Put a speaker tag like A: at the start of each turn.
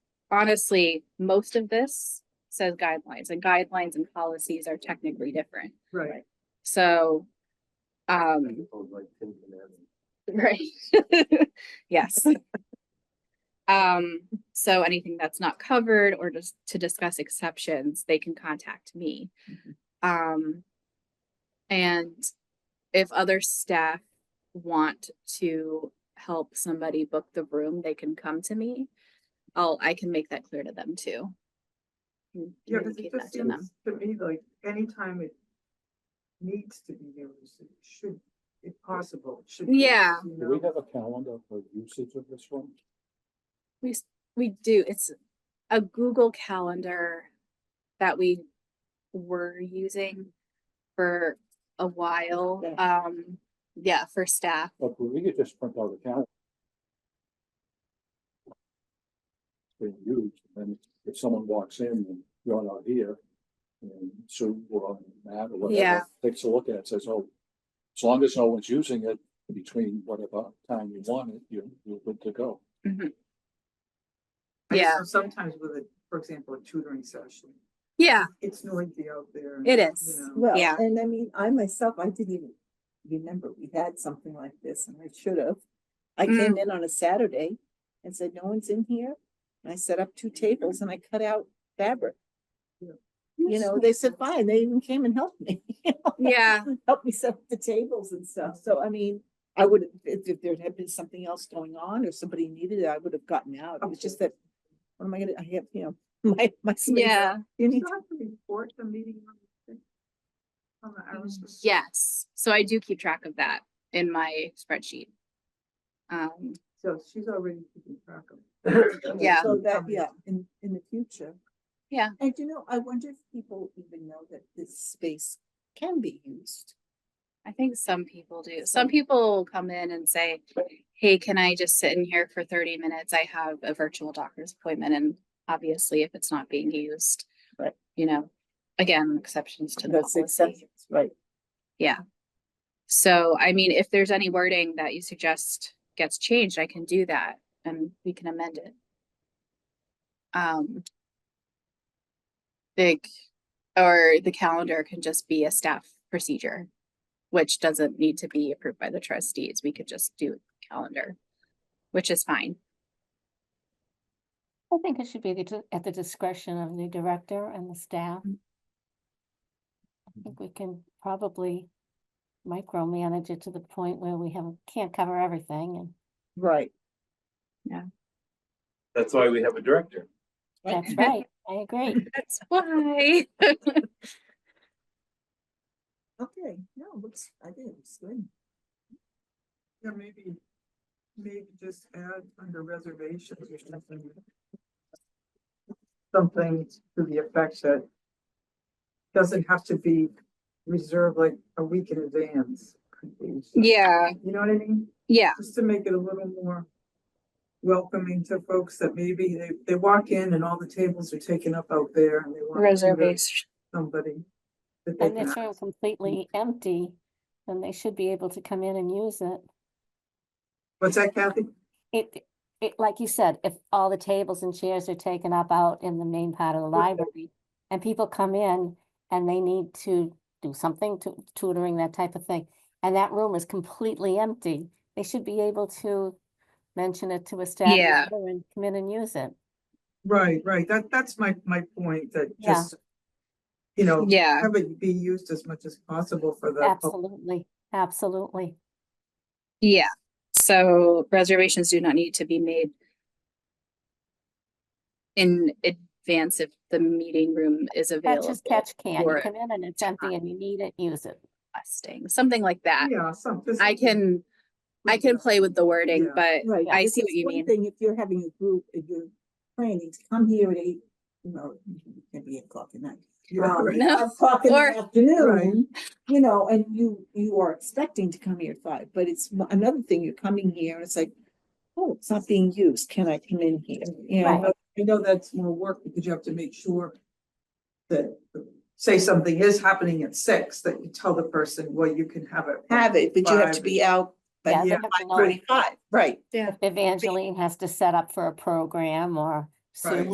A: honestly, most of this says guidelines and guidelines and policies are technically different.
B: Right.
A: So, um, right. Yes. Um, so anything that's not covered or just to discuss exceptions, they can contact me. Um, and if other staff want to help somebody book the room, they can come to me. I'll, I can make that clear to them too. and
B: Yeah, because it
A: communicate that
B: just
A: to them.
B: seems to me like anytime it needs to be used, it should, if possible, it should. be used,
A: Yeah.
B: you
C: Do we
B: know?
C: have a calendar for usage of this room?
A: We, s- we do, it's a Google Calendar that we were using for a while. Um, yeah, for staff.
C: Look, we could just print out a calendar. Being used, and if someone walks in and you're not here, and so we're on that or
A: Yeah.
C: whatever, takes a look at it, says, oh, as long as no one's using it between whatever time you want it, you're, you're good to go.
B: I just
A: Yeah.
B: know Sometimes with a, for example, a tutoring session,
A: Yeah,
B: it's noisy out there. and,
A: It
B: you
A: is.
B: know,
D: Well,
A: Yeah.
D: and I mean, I myself, I didn't even remember we had something like this and I should have. I came
A: Mm.
D: in on a Saturday and said, no one's in here. And I set up two tables and I cut out fabric. You know, they said, fine. They even came and helped me,
A: yeah,
D: helped me set up the tables and stuff. So I mean, I would, if, if there had been something else going on or somebody needed it, I would have gotten out. It was just that, what am I gonna, I have, you know, my, my. space.
A: yeah,
D: You
B: You
D: need
B: still have to report the meeting. on the thing? On
A: Mm,
B: the hours. of-
A: yes. So I do keep track of that in my spreadsheet. Um,
B: So she's already keeping track of.
D: to-
B: it.
A: Yeah.
D: So that,
B: Something.
D: yeah, in, in the future.
A: Yeah.
D: And you know, I wonder if people even know that this space can be used.
A: I think some people do. Some people come in and say, hey, can I just sit in here for thirty minutes? I have a virtual doctor's appointment and obviously if it's not being used.
D: Right.
A: You know, again, exceptions to the
D: That's
A: policy.
D: exceptions, right?
A: So I mean, if there's any wording that you suggest gets changed, I can do that and we can amend it. Um. Big, or the calendar can just be a staff procedure, which doesn't need to be approved by the trustees. We could just do calendar, which is fine.
E: I think it should be the di- at the discretion of the director and the staff.
A: Mm.
E: I think we can probably micromanage it to the point where we have, can't cover everything and
D: Right.
F: That's why we have a director.
E: that's right, I agree.
A: That's why.
D: Okay, no, looks, I think it looks good.
B: Yeah, maybe, maybe just add under reservations or something. Something to the effect that doesn't have to be reserved like a week in advance. could be.
A: Yeah,
B: You know what I mean?
A: yeah,
B: Just to make it a little more welcoming to folks that maybe they, they walk in and all the tables are taken up out there and they want. to meet
A: reservation.
B: Somebody. that they
E: And
B: can
E: if they're
B: ask.
E: completely empty, then they should be able to come in and use it.
B: What's that Kathy?
E: It, it, like you said, if all the tables and chairs are taken up out in the main part of the library and people come in and they need to do something to tutoring, that type of thing, and that room is completely empty, they should be able to mention it to a staff
A: Yeah.
E: member and come in and use it.
B: Right, right. That, that's my, my point that
E: Yeah.
B: just. You know,
A: Yeah,
B: have it be used as much as possible for the. pub-
E: Absolutely, absolutely.
A: yeah. So reservations do not need to be made in advance if the meeting room is
E: Catch
A: available.
E: is catch can.
A: for
E: You come in and it's empty and you need it, use it.
A: requesting, Something like that.
B: Yeah, some. this
A: I
B: is-
A: can, I can play with the wording,
B: Yeah.
A: but
D: Right.
A: I
D: It's
A: see what
D: just
A: you
D: one
A: mean.
D: Thing, if you're having a group, if you're planning to come here at eight, you know, it can be eight o'clock at night.
B: Yeah,
D: um,
B: right.
A: No,
D: five o'clock in the
A: or-
D: afternoon, you know, and you, you are expecting to come here at five, but it's mo- another thing, you're coming here, and it's like, oh, it's not being used, can I come in here? You
B: I
D: know,
E: Right.
B: know- I know that's more work because you have to make sure that, say something is happening at six, that you tell the person, well, you can have it.
D: have it, but you have to
B: Five.
D: be out by
E: Yeah, they
B: yeah,
E: have to know
D: forty-five, right?
A: yeah.
E: if Evangeline has to set up for a program or
B: Right.
E: Sue